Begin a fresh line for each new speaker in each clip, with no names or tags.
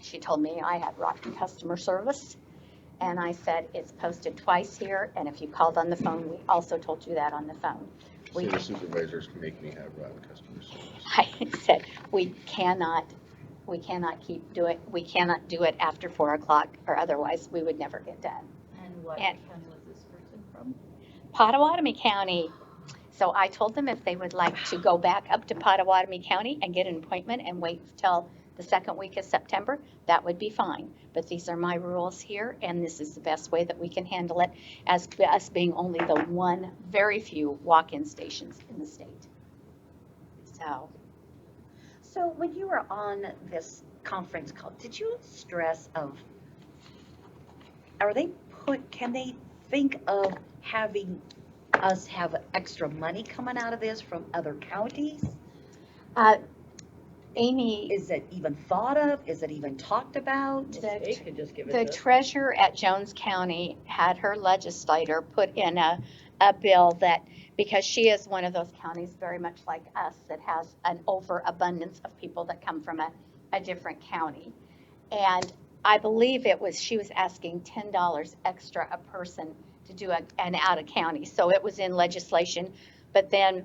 She told me I had rotten customer service. And I said, it's posted twice here, and if you called on the phone, we also told you that on the phone. We,
City supervisors make me have rotten customer service.
I said, we cannot, we cannot keep doing, we cannot do it after four o'clock, or otherwise we would never get done.
And what
And-
county was this person from?
Pottawatomie County. So I told them if they would like to go back up to Pottawatomie County and get an appointment and wait till the second week of September, that would be fine. But these are my rules here, and this is the best way that we can handle it as us being only the one, very few walk-in stations in the state. So,
So when you were on this conference call, did you stress of, are they put, can they think of having us have extra money coming out of this from other counties?
uh, Amy,
Is it even thought of? Is it even talked about?
The
Well, They
tr-
could just give
the
it to.
treasurer at Jones County had her legislator put in a, a bill that, because she is one of those counties very much like us that has an overabundance of people that come from a, a different county. And I believe it was, she was asking ten dollars extra a person to do a- an out of county. So it was in legislation. But then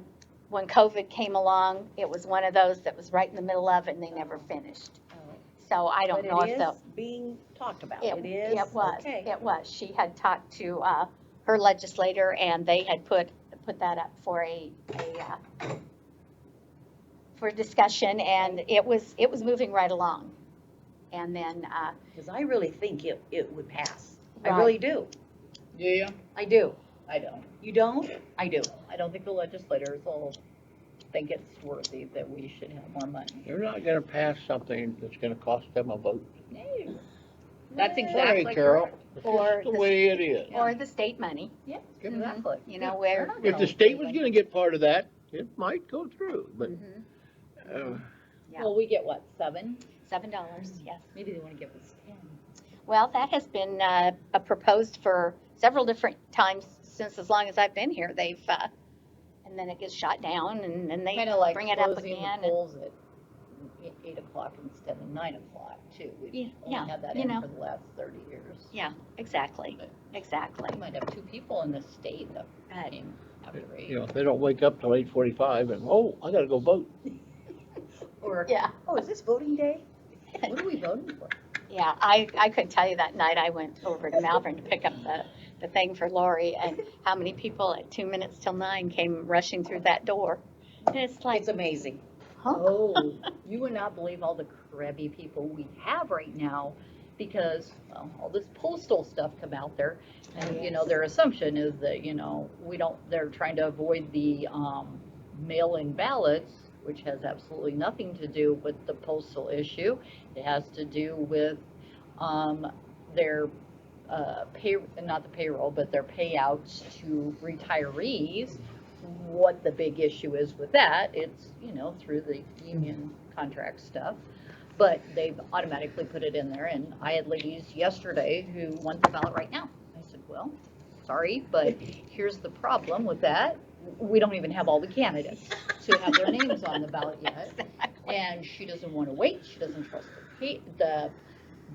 when COVID came along, it was one of those that was right in the middle of and they never finished. So I don't
But
know if
it
the.
is being talked about.
It,
It is.
it was,
okay.
it was. She had talked to, uh, her legislator and they had put, put that up for a, a, uh, for discussion and it was, it was moving right along. And then, uh,
Because I really think it, it would pass. I
Right.
really do.
Do you?
I do.
I don't.
You don't? I do.
I don't think the legislators will think it's worthy that we should have more money.
They're not gonna pass something that's gonna cost them a vote.
That's
Sorry,
exactly
Carol,
correct.
it's
Or
just the
the-
way it is.
or the state money,
Yeah,
Mhm.
exactly.
you know,
They're
where.
not
If
gonna
the state was
let
gonna get part of that, it might go through, but,
Mhm.
uh,
Yeah.
Well, we get what, seven?
Seven dollars, yes.
Maybe they wanna give us ten.
Well, that has been, uh, a proposed for several different times since as long as I've been here. They've, uh, and then it gets shot down and then they
Kinda like
bring it up
closing the
again. and-
polls at eight- eight o'clock instead of nine o'clock too.
Yeah,
We've only
yeah,
had that
you
in
know.
for the last thirty years.
Yeah, exactly, exactly.
We might have two people in the state up running after eight.
you know, if they don't wake up till eight forty-five and, oh, I gotta go vote.
Or,
Yeah,
Oh, is this voting day?
what are we voting for?
yeah, I, I couldn't tell you that night I went over to Malvern to pick up the, the thing for Lori and how many people at two minutes till nine came rushing through that door. And it's like,
It's amazing.
huh?
Oh, you would not believe all the crabby people we have right now because, well, all this postal stuff come out there. And, you know, their assumption is that, you know, we don't, they're trying to avoid the, um, mail-in ballots, which has absolutely nothing to do with the postal issue. It has to do with, um, their, uh, pay, not the payroll, but their payouts to retirees what the big issue is with that. It's, you know, through the union contract stuff. But they've automatically put it in there and I had ladies yesterday who want the ballot right now. I said, well, sorry, but here's the problem with that. We don't even have all the candidates to have their names on the ballot yet. And she doesn't want to wait. She doesn't trust the, pa- the,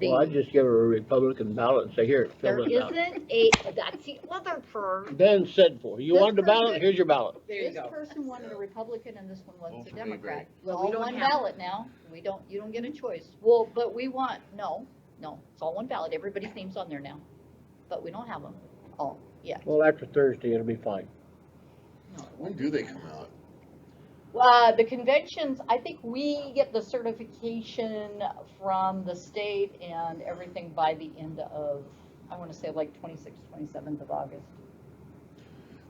the.
Well, I'd just give her a Republican ballot and say, here,
There
fill this out.
isn't a, that's the other per,
Then said for, you
This
wanted a ballot,
person-
here's your ballot.
There you
This
go.
person wanted a Republican and this one wants
Both
a
would be great.
Democrat.
Well, we
All
don't
one
have-
ballot now. We don't, you don't get a choice. Well, but we want, no, no, it's all one ballot. Everybody's name's on there now. But we don't have them all yet.
Well, after Thursday, it'll be fine.
When do they come out?
Uh, the conventions, I think we get the certification from the state and everything by the end of, I wanna say like twenty-sixth, twenty-seventh of August.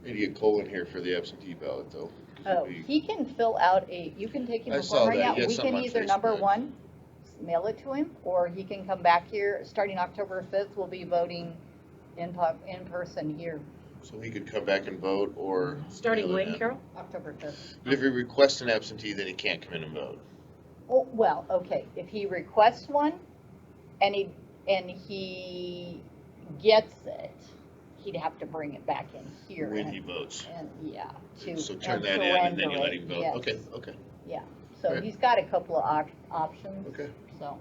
Need to get Cole in here for the absentee ballot though. 'cause
Oh,
it'd be-
he can fill out a, you can take him
I
a
saw
form right
that.
now,
He had
we
something
can
on
either number
Facebook.
one, mail it to him, or he can come back here, starting October fifth, we'll be voting in pub, in person here,
So he could come back and vote or.
Starting
mail it
when,
in.
Carol?
October fifth.
But if he requests an absentee, then he can't come in and vote.
Oh, well, okay, if he requests one, and he, and he gets it, he'd have to bring it back in here.
When
and-
he votes.
And, yeah, to.
So turn that in and then you let him
surrender it,
vote.
yes.
Okay, okay,
Yeah, so
Okay.
he's got a couple of op- options,
okay.
so.